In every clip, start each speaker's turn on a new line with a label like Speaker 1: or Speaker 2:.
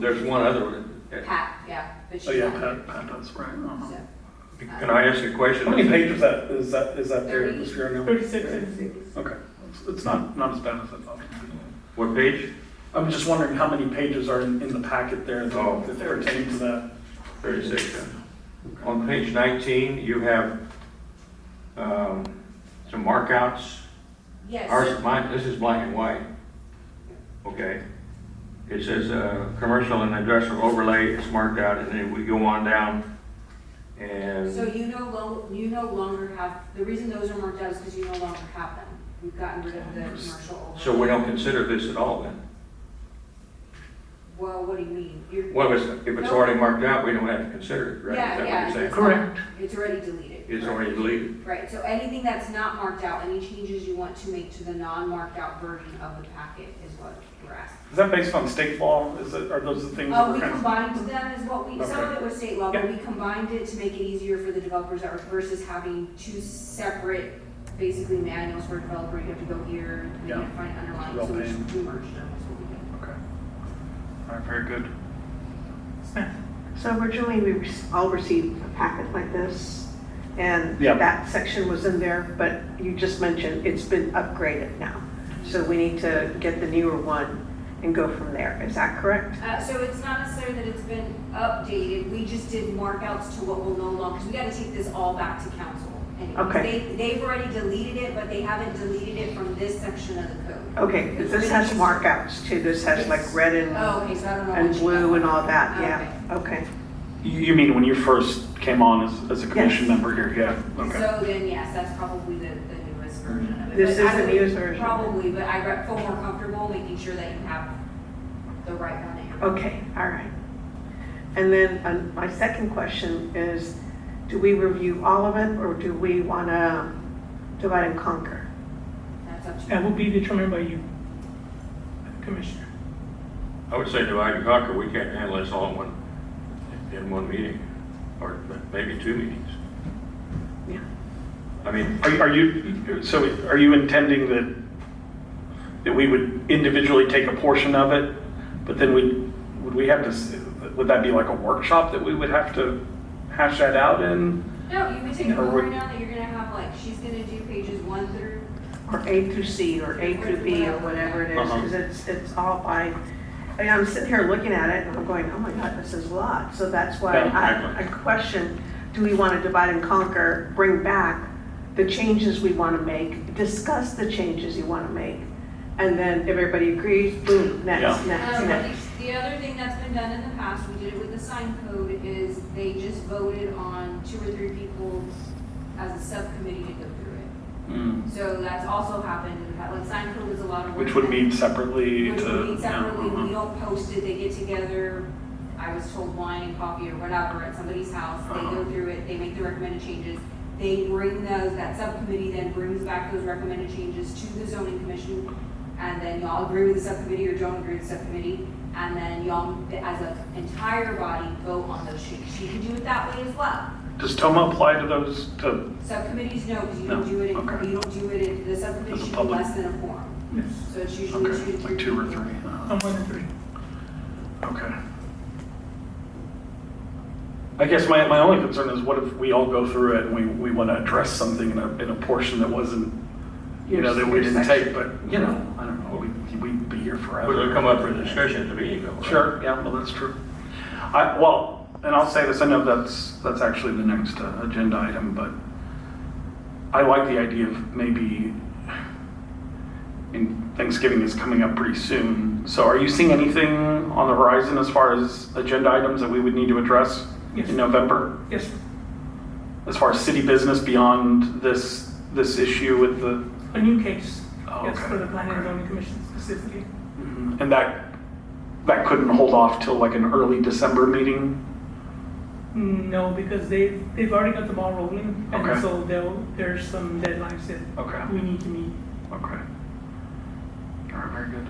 Speaker 1: There's one other one.
Speaker 2: Pat, yeah, but she.
Speaker 3: Oh, yeah, Pat, Pat does, right. uh-huh.
Speaker 2: So,
Speaker 1: Can I ask you a question?
Speaker 3: How many pages that, is that, is that there this year now?
Speaker 4: Thirty-six and six.
Speaker 3: Okay, It's- it's not, not as bad as I thought.
Speaker 1: What page?
Speaker 3: I'm just wondering how many pages are in, in the packet there
Speaker 1: Oh.
Speaker 3: that that pertain to that?
Speaker 1: Thirty-six. yeah. On page nineteen, you have, um, some markouts.
Speaker 2: Yes.
Speaker 1: Ours, mine, this is black and white. Okay. It says, uh, commercial and industrial overlay is marked out, and then we go on down.
Speaker 2: So
Speaker 1: And,
Speaker 2: you no lo, you no longer have, the reason those are marked out is because you no longer have them. We've gotten rid of the commercial overlay.
Speaker 1: so we don't consider this at all then?
Speaker 2: Well, what do you mean? You're,
Speaker 1: Well, if it's, if it's already marked out, we don't have to consider it, right?
Speaker 2: yeah, yeah.
Speaker 1: Is that what you're saying?
Speaker 2: it's
Speaker 3: Correct.
Speaker 2: not- It's already deleted.
Speaker 1: It's
Speaker 2: Right.
Speaker 1: already deleted.
Speaker 2: Right, so anything that's not marked out, any changes you want to make to the non-marked out version of the packet is what we're asking.
Speaker 3: Is that based on state law? Is it, are those the things that
Speaker 2: Uh,
Speaker 3: we're
Speaker 2: we
Speaker 3: kind of?
Speaker 2: combined them is what we, some of it was state law, but
Speaker 3: Okay.
Speaker 2: we combined it to make it easier for the developers that were versus having two separate, basically manuals for a developer, you have to go here, you
Speaker 3: Yeah.
Speaker 2: can't find underlying,
Speaker 3: Well,
Speaker 2: so we
Speaker 3: then-
Speaker 2: just- we merged them, is what we did.
Speaker 3: Okay. All right, very good.
Speaker 4: So originally, we re- all received a packet like this, and
Speaker 3: Yeah.
Speaker 4: that section was in there, but you just mentioned it's been upgraded now. So we need to get the newer one and go from there. Is that correct?
Speaker 2: Uh, so it's not necessarily that it's been updated, we just did markouts to what will no longer, because we gotta take this all back to council. anyway.
Speaker 4: Okay.
Speaker 2: They, they've already deleted it, but they haven't deleted it from this section of the code.
Speaker 4: Okay, 'cause this has markouts too. This has like red and,
Speaker 2: Oh, okay, so I don't know.
Speaker 4: and
Speaker 2: which-
Speaker 4: blue and all that, yeah. Okay,
Speaker 3: You, you mean when you first came on as, as a commission
Speaker 4: Yes.
Speaker 3: member here? Yeah, okay.
Speaker 2: So then, yes, that's probably the, the newest version of it.
Speaker 4: This
Speaker 2: But
Speaker 4: is
Speaker 2: I
Speaker 4: the
Speaker 2: would-
Speaker 4: newest version.
Speaker 2: Probably, but I got- feel more comfortable making sure that you have the right one there.
Speaker 4: okay, all right. And then um, my second question is, do we review all of it, or do we want to divide and conquer? Oh.
Speaker 2: That's up to you.
Speaker 5: That will be determined by you, Commissioner.
Speaker 1: I would say divide and conquer, we can't handle this all in one, in one meeting, or maybe two meetings.
Speaker 4: Yeah.
Speaker 1: I mean,
Speaker 3: Are, you- are you, so are you intending that, that we would individually take a portion of it? But then we, would we have to, s- would that be like a workshop that we would have to hash that out in?
Speaker 2: No, you can take it
Speaker 3: Or
Speaker 2: over
Speaker 3: would-
Speaker 2: now that you're gonna have like, she's gonna do pages one through,
Speaker 4: or A through C, or A through B, or whatever it is,
Speaker 3: Uh-huh.
Speaker 4: because it's, it's all by, I mean, I'm sitting here looking at it, and I'm going, oh my God, this is a lot, so that's why
Speaker 1: Yeah.
Speaker 4: I, I question, do we want to divide and conquer, bring back the changes we want to make, discuss the changes you want to make, and then if everybody agrees, boom,
Speaker 3: Yeah.
Speaker 4: next, next,
Speaker 2: Um,
Speaker 4: next.
Speaker 2: the- The other thing that's been done in the past, we did it with the sign code, is they just voted on two or three people as a subcommittee to go through it. So that's also happened in the past, like sign code is a lot of work.
Speaker 3: Which would meet separately to.
Speaker 2: Which would mean
Speaker 3: yeah,
Speaker 2: separately,
Speaker 3: uh-huh.
Speaker 2: we don't post it, they get together, I was told wine and coffee or whatever at somebody's house, they
Speaker 3: Uh-huh.
Speaker 2: go through it, they make the recommended changes. They bring those, that subcommittee then brings back those recommended changes to the zoning commission, and then y'all agree with the subcommittee or don't agree with the subcommittee, and then y'all, as an entire body, vote on those changes. You can do it that way as well.
Speaker 3: uh-huh. Does TOMA apply to those, to,
Speaker 2: Subcommittees, no, because you don't
Speaker 3: No,
Speaker 2: do it,
Speaker 3: okay.
Speaker 2: in- you don't do it, in- the subcommittee
Speaker 3: As a
Speaker 2: should be
Speaker 3: public-
Speaker 2: less than a forum. So it's usually two,
Speaker 3: okay, like two or
Speaker 2: people.
Speaker 3: three? uh,
Speaker 5: I'm one and three.
Speaker 3: Okay. I guess my, my only concern is what if we all go through it and we, we want to address something in a, in a portion that wasn't, you know, that we
Speaker 4: Your
Speaker 3: didn't
Speaker 4: section.
Speaker 3: take, but, you know, I don't know, we, we'd be here forever.
Speaker 1: we'll come up for discussion at the meeting though, right?
Speaker 3: Sure, yeah, well, that's true. I, well, and I'll say this, I know that's, that's actually the next uh, agenda item, but I like the idea of maybe, and Thanksgiving is coming up pretty soon, so are you seeing anything on the horizon as far as agenda items that we would need to address
Speaker 5: Yes.
Speaker 3: in November?
Speaker 5: Yes, sir.
Speaker 3: As far as city business beyond this, this issue with the,
Speaker 5: a new case.
Speaker 3: Oh,
Speaker 5: Yes,
Speaker 3: okay,
Speaker 5: for the planning and
Speaker 3: okay.
Speaker 5: zoning commission specifically.
Speaker 3: and that, that couldn't hold off till like an early December meeting?
Speaker 5: No, because they, they've already got the ball rolling,
Speaker 3: Okay.
Speaker 5: and so they'll, there's some deadlines
Speaker 3: Okay.
Speaker 5: that we need to meet.
Speaker 3: Okay. All right, very good.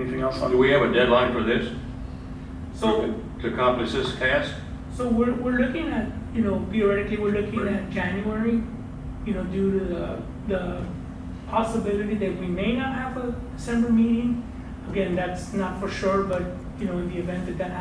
Speaker 3: Anything else on?
Speaker 1: Do we have a deadline for this?
Speaker 5: So,
Speaker 1: To accomplish this task?
Speaker 5: so we're, we're looking at, you know, theoretically, we're looking
Speaker 3: Right.
Speaker 5: at January, you know, due to the, the possibility that we may not have a December meeting. Again, that's not for sure, but, you know, in the event that that